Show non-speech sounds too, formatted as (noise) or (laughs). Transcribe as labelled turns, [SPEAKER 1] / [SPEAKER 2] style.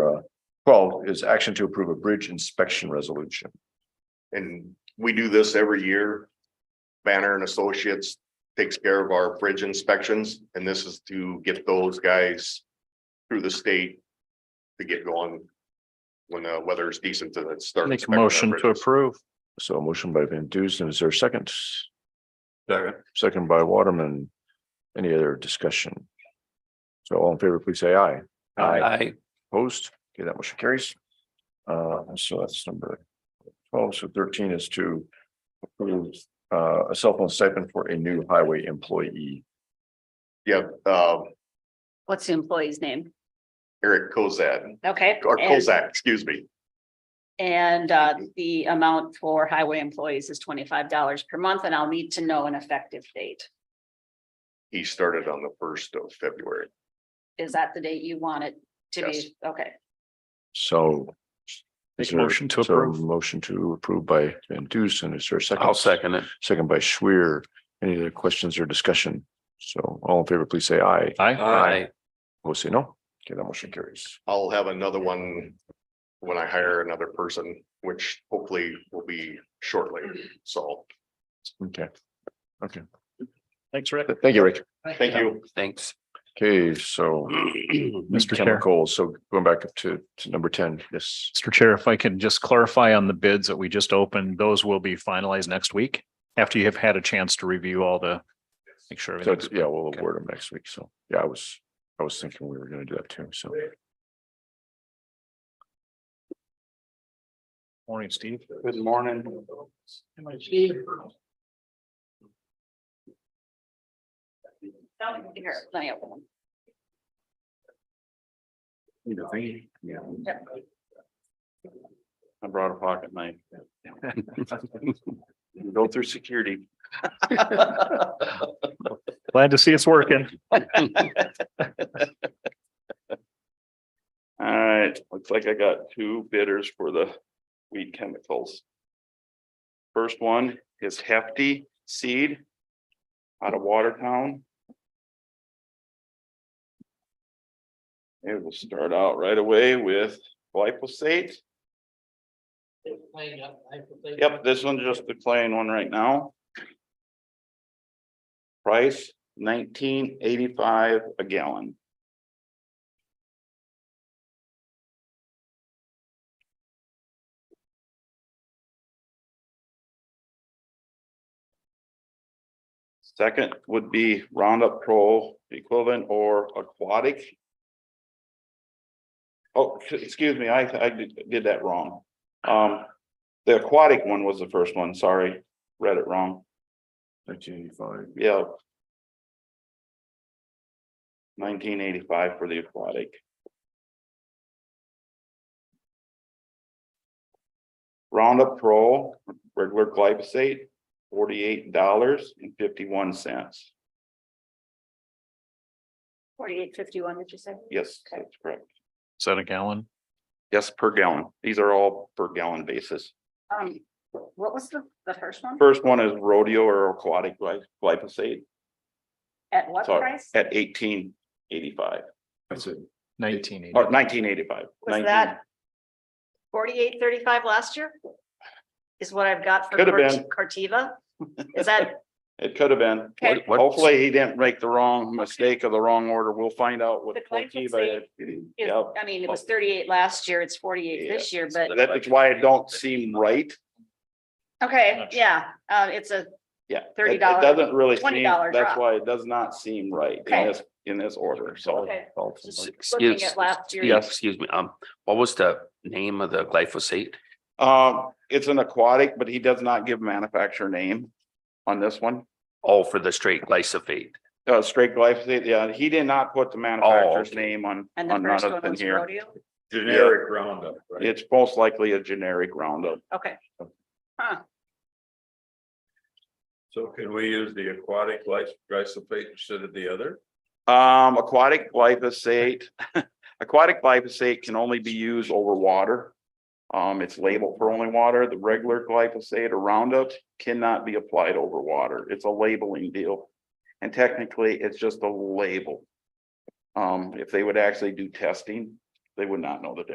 [SPEAKER 1] uh, Twelve is action to approve a bridge inspection resolution.
[SPEAKER 2] And we do this every year. Banner and Associates takes care of our bridge inspections, and this is to get those guys through the state to get going when the weather is decent to start.
[SPEAKER 3] Make a
[SPEAKER 2] inspecting our
[SPEAKER 3] motion to
[SPEAKER 2] bridges.
[SPEAKER 3] approve.
[SPEAKER 1] So a motion by Van Dusen, is there a second? Second. Second by Waterman. Any other discussion? So all in favor, please say aye.
[SPEAKER 3] Aye.
[SPEAKER 1] Opposed? Okay, that motion carries. Uh, so that's number twelve, so thirteen is to approve uh, a cell phone stipend for a new highway employee.
[SPEAKER 2] Yep, um,
[SPEAKER 4] What's the employee's name?
[SPEAKER 2] Eric Kozad,
[SPEAKER 4] Okay.
[SPEAKER 2] or
[SPEAKER 4] and-
[SPEAKER 2] Kozak, excuse me.
[SPEAKER 4] And uh, the amount for highway employees is twenty-five dollars per month, and I'll need to know an effective date.
[SPEAKER 2] He started on the first of February.
[SPEAKER 4] Is that the date you want it to
[SPEAKER 2] Yes.
[SPEAKER 4] be? Okay,
[SPEAKER 1] So. is
[SPEAKER 3] Make a
[SPEAKER 1] there-
[SPEAKER 3] motion to
[SPEAKER 1] so
[SPEAKER 3] approve.
[SPEAKER 1] Motion to approve by Van Dusen, is there a 2nd
[SPEAKER 3] I'll second it.
[SPEAKER 1] Second by Schwer. Any other questions or discussion? So all in favor, please say aye.
[SPEAKER 3] Aye.
[SPEAKER 1] Aye. Opposed, say no. Okay, that motion carries.
[SPEAKER 2] I'll have another one when I hire another person, which hopefully will be shortly, so,
[SPEAKER 1] Okay,
[SPEAKER 3] Thanks, Rick.
[SPEAKER 1] Th- thank you, Rick.
[SPEAKER 2] thank you.
[SPEAKER 3] Thanks.
[SPEAKER 1] Okay,
[SPEAKER 3] (clears throat)
[SPEAKER 1] so. Kendall
[SPEAKER 3] Mr. Chair,
[SPEAKER 1] Cole, so going back up to to number ten, yes.
[SPEAKER 3] Mr. Chair, if I can just clarify on the bids that we just opened, those will be finalized next week after you have had a chance to review all the, make sure.
[SPEAKER 1] So,
[SPEAKER 3] everything's-
[SPEAKER 1] it's- yeah, we'll
[SPEAKER 3] Okay.
[SPEAKER 1] award them next week. So, yeah, I was, I was thinking we were gonna do that too, so.
[SPEAKER 3] Morning, Steve.
[SPEAKER 5] Good morning.
[SPEAKER 4] here, let me open them.
[SPEAKER 5] I brought a pocket knife.
[SPEAKER 1] Go through security.
[SPEAKER 3] Glad to see it's working.
[SPEAKER 5] All right, looks like I got two bidders for the weed chemicals. First one is Hefty Seed out of Watertown. It will start out right away with glyphosate. Yep, this one's just the plain one right now. Price nineteen eighty-five a gallon. Second would be Roundup Pro equivalent or aquatic. Oh, c- excuse me, I, I did did that wrong. Um, the aquatic one was the first one, sorry, read it wrong,
[SPEAKER 1] Nineteen eighty-five.
[SPEAKER 5] yeah. Nineteen eighty-five for the aquatic. Roundup Pro, regular glyphosate, forty-eight dollars and fifty-one cents.
[SPEAKER 4] Forty-eight fifty-one, did you say?
[SPEAKER 5] Yes,
[SPEAKER 4] Okay.
[SPEAKER 5] that's correct.
[SPEAKER 3] Is that a gallon?
[SPEAKER 5] Yes, per gallon. These are all per gallon basis.
[SPEAKER 4] Um, what was the, the first one?
[SPEAKER 5] First one is rodeo or aquatic gly- glyphosate
[SPEAKER 4] At what
[SPEAKER 5] Sorry.
[SPEAKER 4] price?
[SPEAKER 5] at eighteen eighty-five
[SPEAKER 1] That's it.
[SPEAKER 3] Nineteen eighty.
[SPEAKER 5] or nineteen eighty-five.
[SPEAKER 4] Was that forty-eight thirty-five last year? Is what I've got for
[SPEAKER 5] Could have
[SPEAKER 4] Cort- Corteva? Is
[SPEAKER 5] (laughs)
[SPEAKER 4] that,
[SPEAKER 5] It could have been.
[SPEAKER 4] Okay.
[SPEAKER 1] What-
[SPEAKER 5] Hopefully he didn't make the wrong mistake or the wrong order. We'll find out what.
[SPEAKER 4] The glyphosate
[SPEAKER 5] Corteva is.
[SPEAKER 4] is-
[SPEAKER 5] Yep.
[SPEAKER 4] I mean, it was thirty-eight last year, it's forty-eight this year, but,
[SPEAKER 5] That is why it don't seem right.
[SPEAKER 4] okay,
[SPEAKER 3] Not sure.
[SPEAKER 4] yeah, uh, it's a
[SPEAKER 5] Yeah. it-
[SPEAKER 4] $30
[SPEAKER 5] It doesn't really seem,
[SPEAKER 4] $20
[SPEAKER 5] that's
[SPEAKER 4] drop.
[SPEAKER 5] why it does not seem right in
[SPEAKER 4] Okay.
[SPEAKER 5] this, in this order. So
[SPEAKER 4] Okay.
[SPEAKER 1] Dalton, like,
[SPEAKER 4] looking
[SPEAKER 6] Excuse,
[SPEAKER 4] at last year.
[SPEAKER 6] yeah, excuse me, um, what was the name of the glyphosate?
[SPEAKER 5] um, it's an aquatic, but he does not give manufacturer name on this one.
[SPEAKER 6] Oh, for the straight glyphosate.
[SPEAKER 5] Uh, straight glyphosate, yeah, he did not put the manufacturer's name on,
[SPEAKER 4] And the
[SPEAKER 5] on none
[SPEAKER 4] first
[SPEAKER 5] of
[SPEAKER 4] one
[SPEAKER 5] them
[SPEAKER 4] was
[SPEAKER 5] here.
[SPEAKER 4] rodeo?
[SPEAKER 5] Generic
[SPEAKER 1] roundup,
[SPEAKER 5] It's most likely a generic roundup.
[SPEAKER 4] Okay,
[SPEAKER 7] So can we use the aquatic gly- glyphosate instead of the other?
[SPEAKER 5] Um, aquatic glyphosate, (laughs) aquatic glyphosate can only be used over water. Um, it's labeled for only water. The regular glyphosate or Roundup cannot be applied over water. It's a labeling deal. And technically, it's just a label. Um, if they would actually do testing, they would not know the difference.